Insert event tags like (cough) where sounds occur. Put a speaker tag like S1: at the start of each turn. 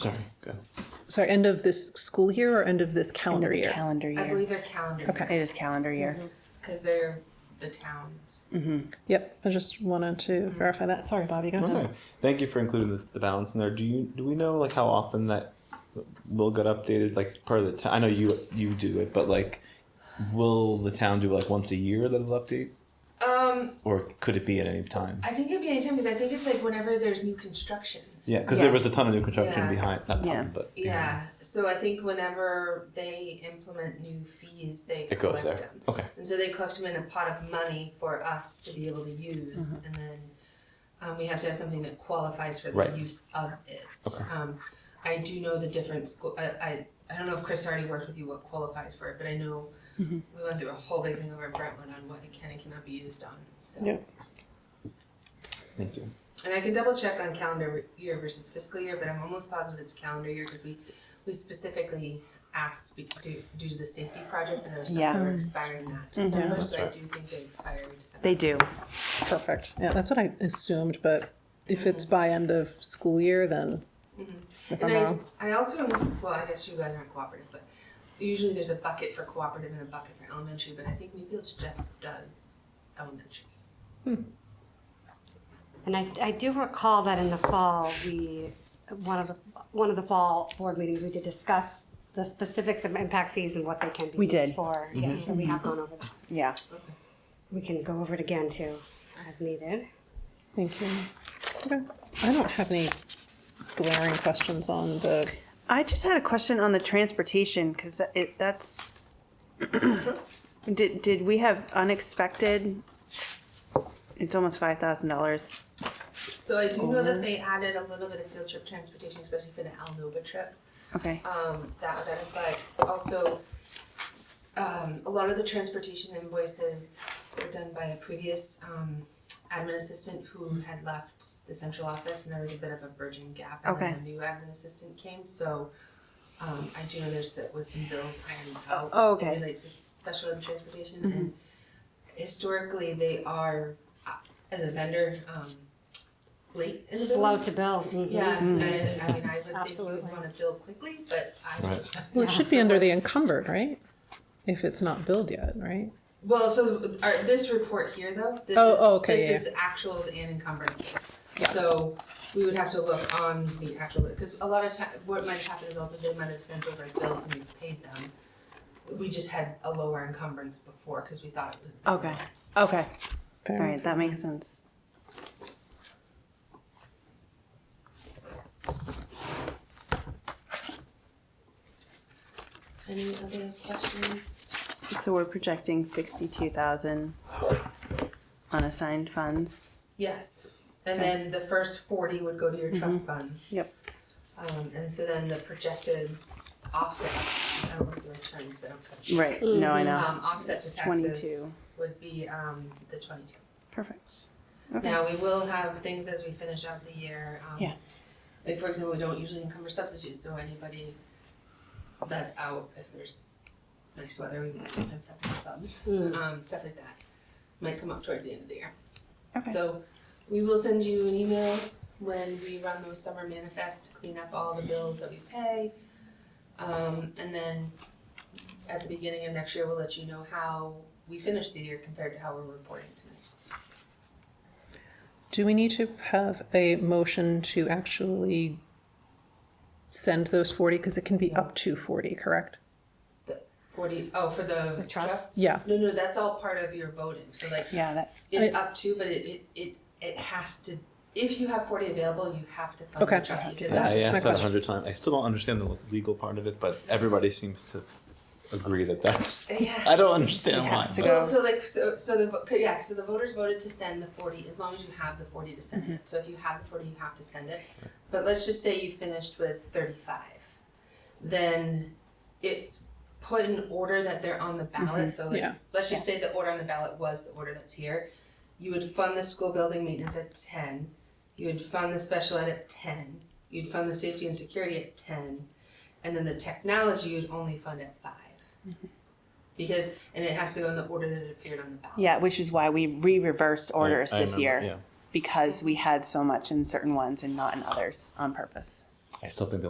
S1: Sorry, go.
S2: Sorry, end of this school year or end of this
S3: End of
S2: calendar
S3: the
S2: year?
S3: calendar
S4: I
S3: year. Mm-hmm.
S4: believe they're calendar.
S3: It is calendar year.
S4: Because they're the towns.
S2: Yep, I just wanted to verify that. Sorry, Bobby, go ahead.
S1: Okay. Thank you for including the, the balance in there. Do you do we know like how often that will get updated? Like part of the town. I know you you do it, but like, will the town do like once a year that it'll update,
S4: Um,
S1: or could it be at any time?
S4: I think it'd be anytime because I think it's like whenever there's new construction.
S1: Yeah, because
S3: Yeah.
S1: there was a ton of new construction
S4: Yeah.
S1: behind. Not ton,
S3: Yeah.
S1: but
S4: Yeah. So I think whenever they implement new fees, they
S1: it
S4: collect
S1: goes there.
S4: them.
S3: um,
S1: Okay.
S4: And so they collect them in a pot of money for us to be able to use,
S1: Mm-hmm.
S4: and then um, we have to have something that qualifies for the
S1: Right.
S4: use of it.
S1: Okay.
S4: Um, I do know the different school. I, I I don't know if Chris already worked with you what qualifies for it, but I know
S1: Mm-hmm.
S4: we went through a whole big thing over in Brentwood on what it can and cannot be used on. So.
S2: Yep.
S1: Thank you.
S4: And I can double check on calendar year versus fiscal year, but I'm almost positive it's calendar year because we, we specifically asked be- due, due to the safety project and our
S3: Yeah.
S4: summer expiring that December,
S1: That's
S4: so I
S1: right.
S4: do think they expire in December.
S3: They do.
S2: Perfect. Yeah, that's what I assumed, but if it's by end of school year, then if I'm
S4: And
S2: wrong.
S4: I, I also, am- well, I guess you guys aren't cooperative, but usually there's a bucket for cooperative and a bucket for elementary, but I think Newfields just does elementary.
S5: And I, I do recall that in the fall, we, one of the, one of the fall board meetings, we did discuss the specifics of impact fees and what they can
S3: We
S5: be
S3: did.
S5: used for. Yeah, so we have gone over that.
S3: Yeah.
S5: We can go over it again too, as needed.
S2: Thank you. Okay. I don't have any glaring questions on the,
S3: I just had a question on the transportation because it that's. (clears throat) did did we have unexpected? It's almost five thousand dollars.
S4: So I do know that they added a little bit of field trip transportation, especially for the Alnoba trip.
S3: Okay.
S4: um, that was added, but also, um, a lot of the transportation invoices were done by a previous, um, admin assistant
S3: Mm-hmm.
S4: who had left the central office, and there was a bit of a bridging gap, and then
S3: Okay.
S4: a new admin assistant came, so, um, I do know there's, that was some bills ironed out.
S3: Oh, okay. Mm-hmm.
S4: It relates to special ed transportation, and historically, they are, uh, as a vendor, um, late in the bill.
S5: Slow to bill. mhm.
S4: Yeah, and I mean, I would think you would
S5: Absolutely.
S4: wanna bill quickly, but I,
S1: Right.
S2: well, it should be under the encumbered, right? If it's not billed yet, right?
S4: well, so, our this report here though, this
S2: Oh, oh,
S4: is,
S2: okay, yeah,
S4: this is actuals and encumbrances. So, we would have to look on the actual, cause a lot of ti- what might have happened is also they might have sent over bills and we paid them. We just had a lower encumbrance before, cause we thought it was.
S3: Okay. Okay.
S2: Fair.
S3: All right. That makes sense.
S4: Any other questions?
S3: So we're projecting sixty-two thousand unassigned funds.
S4: Yes, and then the first forty would go to your trust funds.
S3: Mm-hmm. Yep.
S4: Um, and so then the projected offset, I don't know the right term, cause I don't touch.
S3: Right. No, I know.
S4: Um, offset to taxes
S3: Twenty-two.
S4: would be, um, the twenty-two.
S3: Perfect. Okay.
S4: Now, we will have things as we finish out the year. um,
S3: Yeah.
S4: Like, for example, we don't usually encumber substitutes, so anybody that's out, if there's nice weather, we might have separate subs,
S3: Hmm.
S4: um, stuff like that. Might come up towards the end of the year.
S3: Okay.
S4: So we will send you an email when we run those summer manifests to clean up all the bills that we pay. Um, and then at the beginning of next year, we'll let you know how we finish the year compared to how we're reporting tonight.
S2: Do we need to have a motion to actually send those 40? Because it can be up to 40, correct?
S4: Forty, oh, for the.
S5: The trust?
S2: Yeah.
S4: No, no, that's all part of your voting, so like,
S3: Yeah. That.
S4: it's up to, but it, it, it, it has to, if you have forty available, you have to fund the
S2: Okay.
S4: trust, because
S1: Yeah, I
S4: that's,
S1: asked
S2: my
S1: that a hundred times. I still don't understand the legal part of it, but everybody seems to agree that that's.
S4: yeah.
S1: I don't understand
S3: It
S1: why.
S3: has to
S1: but-
S3: go.
S4: Well, so like, so, so the, vo- yeah, so the voters voted to send the forty, as long as you have the forty to send it, so if you have the forty, you have to send it. But let's just say you finished with thirty-five, then it's put in order that they're on the ballot, so like,
S2: yeah.
S4: let's just say the order on the ballot was the order that's here. You would fund the school building maintenance at ten, you would fund the special ed at ten, you'd fund the safety and security at ten, and then the technology you'd only fund at five. Because, and it has to go in the order that it appeared on the ballot.
S3: Yeah, which is why we re-reversed orders
S1: I
S3: this
S1: remember,
S3: year
S1: yeah.
S3: because we had so much in certain ones and not in others on purpose.
S1: I still think the